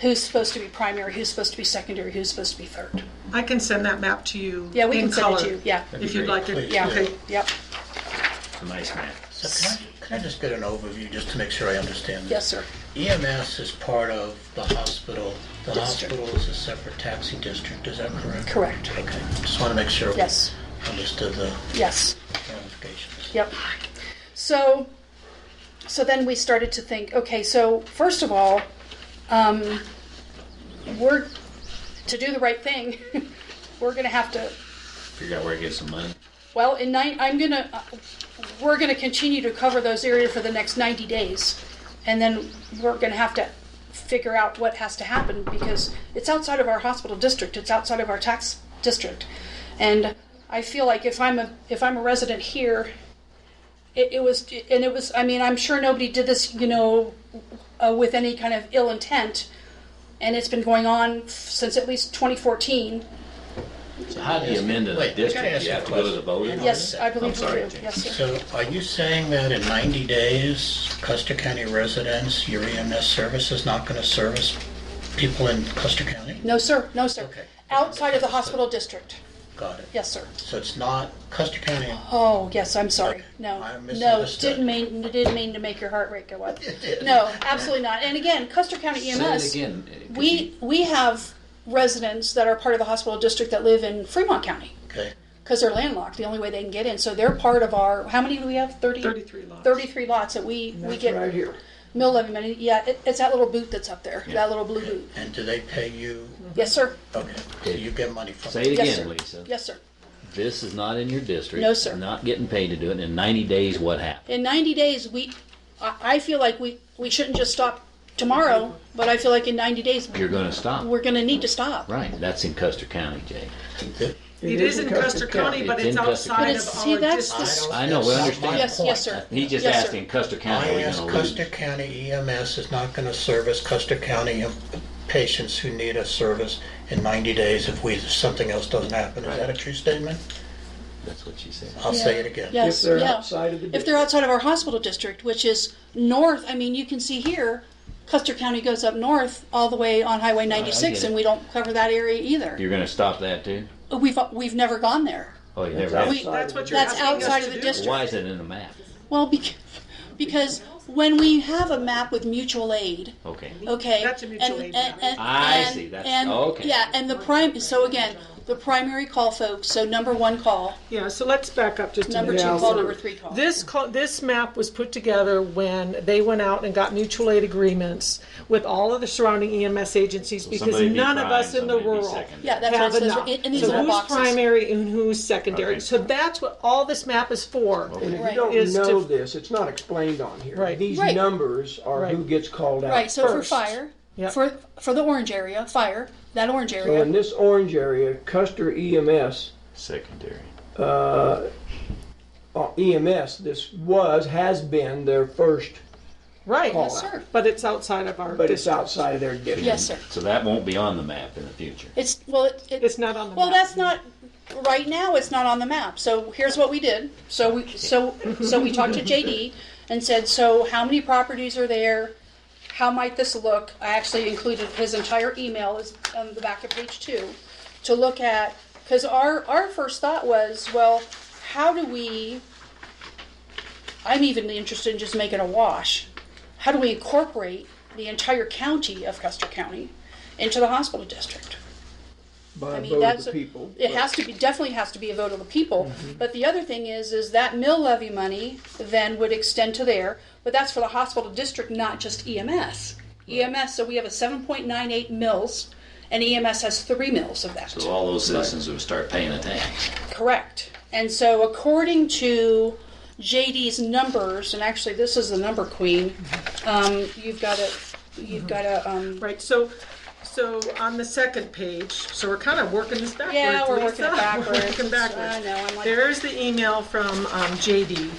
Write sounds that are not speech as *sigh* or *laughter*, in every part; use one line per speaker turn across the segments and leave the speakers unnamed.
who's supposed to be primary, who's supposed to be secondary, who's supposed to be third.
I can send that map to you
Yeah, we
in
can send it
color,
to you. Yeah,
That'd be
If you'd
great,
like it.
please.
Yeah.
Okay.
yep,
It's a nice map.
So can I, can I just get an overview, just to make sure I understand
yes, sir.
this? EMS is part of the hospital. The
District.
hospital is a separate taxi district, is that correct?
Correct.
Okay, just want to make sure. we
Yes.
Understood the
Yes.
ramifications.
Yep. So, so then we started to think. Okay, so first of all, um, we're to do the right thing. *laughs* we're going to have to.
Figure out where to get some money.
Well, in nine, I'm going to. Uh, we're going to continue to cover those areas for the next 90 days, and then we're going to have to figure out what has to happen because it's outside of our hospital district. It's outside of our tax district, and I feel like if I'm a if I'm a resident here it, it was and it was i mean i'm sure nobody did this you know uh, with any kind of ill intent and it's been going on since at least 2014
Oh, So how do you amend a
Wait, I gotta
district?
ask
You
you a
have to go to the
question.
voter?
yes i
I'm
believe we
sorry,
do
Jane.
yes sir
So are you saying that in 90 days, Custer County residents, your EMS service is not going to service people in Custer County?
no sir no sir
Okay.
outside of the hospital district
Got it.
yes sir
So it's not Custer County,
oh yes i'm sorry no
I
no
misunderstood.
didn't mean didn't mean to make your heart rate go
*laughs*
up
did.
no absolutely not and again custer county ems
Say it again. uh, 'cause
we we have residents that are part of the hospital district that live in fremont county
okay?
because they're landlocked, the only way they can get in. So they're part of our, how many do we have? 30,
33 lots.
33 lots that we, we get.
right here.
Mill levy money. Yeah, it, it's that little boot that's up there, that little blue boot.
And do they pay you?
Yes, sir.
Okay, so you get money from
Say it
Yes, sir.
again, Lisa.
Yes, sir.
This is not in your district.
No, sir.
Not getting paid to do it. In 90 days, what happened?
In 90 days, we, I, I feel like we, we shouldn't just stop tomorrow, but I feel like in 90 days,
You're going to stop.
we're going to need to stop.
Right, that's in Custer County, Jay.
It is in Custer County, but
It's
it's
in Custer
outside
County. But
of
it's- see,
our
that's the
district.
I know, we
That's not
understand.
my
Yes,
point.
yes, sir.
He just
Yes, sir.
asked in Custer County, are
I
we
asked
going to lose?
Custer County EMS is not going to service Custer County em- patients who need a service in 90 days if we, if something else doesn't happen. Is that a true statement?
That's what she said.
I'll say it again.
Yes,
If they're
yeah.
outside of the
If they're outside of our hospital district, which is north, I mean, you can see here, Custer County goes up north all the way on Highway 96,
it.
and we don't cover that area either.
You're going to stop that too?
We've, we've never gone there.
Oh, you never
outside.
asked.
We,
That's what you're
That's
asking us
outside
to
of the
do.
district.
Why is it in the map?
well, because, *laughs* because when we have a map with mutual aid,
Okay.
okay,
That's a mutual
and,
aid
and,
map.
and,
I
and-
see, that's-
and-
okay.
Yeah, and the prime. So again, the primary call, folks. So number one call,
Yeah, so let's back up just a
number
minute.
two
Yeah,
call,
so
number three call.
This call, this map was put together when they went out and got mutual aid agreements with all of the surrounding EMS agencies because
somebody be
none of
prime,
us in the
somebody be
rural
second.
yeah, that's
have
what it
enough.
says. in- in these
so
little
who's
boxes.
primary and who's secondary?
Okay.
So that's what all this map is for.
And if
Right.
you don't
Is to-
know this, it's not explained on here.
Right.
These
Right.
numbers are who
Right.
gets called out.
Right, so for
first.
fire,
Yep.
for for the orange area, fire that orange
So
area.
in this orange area, Custer E EMS,
Secondary.
uh, EMS, this was, has been their first,
Right.
Call.
yes, sir.
But it's outside of our
but it's
district.
outside of their district.
Yes, sir.
So that won't be on the map in the future.
It's well, it, it,
It's not on the
well.
map.
That's not right now. It's not on the map. So here's what we did. So we so so we talked to JD and said, so how many properties are there? How might this look? I actually included his entire email is on the back of page two to look at because our our first thought was, well, how do we? I'm even interested in just making a wash. How do we incorporate the entire county of Custer County into the hospital district?
By
I
a
mean,
vote of
that's
the
a-
people.
It has to be, definitely has to be a vote of the people.
Mm-hmm.
But the other thing is, is that mill levy money then would extend to there, but that's for the hospital district, not just E EMS. EMS, E so we have a seven point nine eight mills, and EMS has three mills of that.
So all those citizens would start paying a tax.
Correct. And so according to JD's numbers, and actually this is the number queen,
Mm-hmm.
um, you've got a, you've got a, um,
Right, so, so on the second page, so we're kind of working this backwards.
Yeah, we're working it
*laughs* Lisa.
backwards.
We're working backwards.
I know, I'm like-
There's the email from um, JD,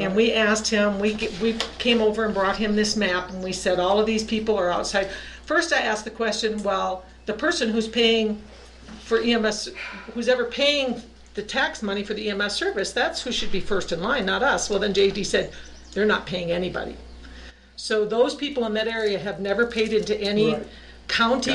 and we asked him, we, g- we came over and brought him this map, and we said, all of these people are outside. First, I asked the question, well, the person who's paying for EMS, who's ever paying the tax money for the EMS service, that's who should be first in line, not us. Well, then JD said, they're not paying anybody. So those people in that area have never paid into any
Right.
county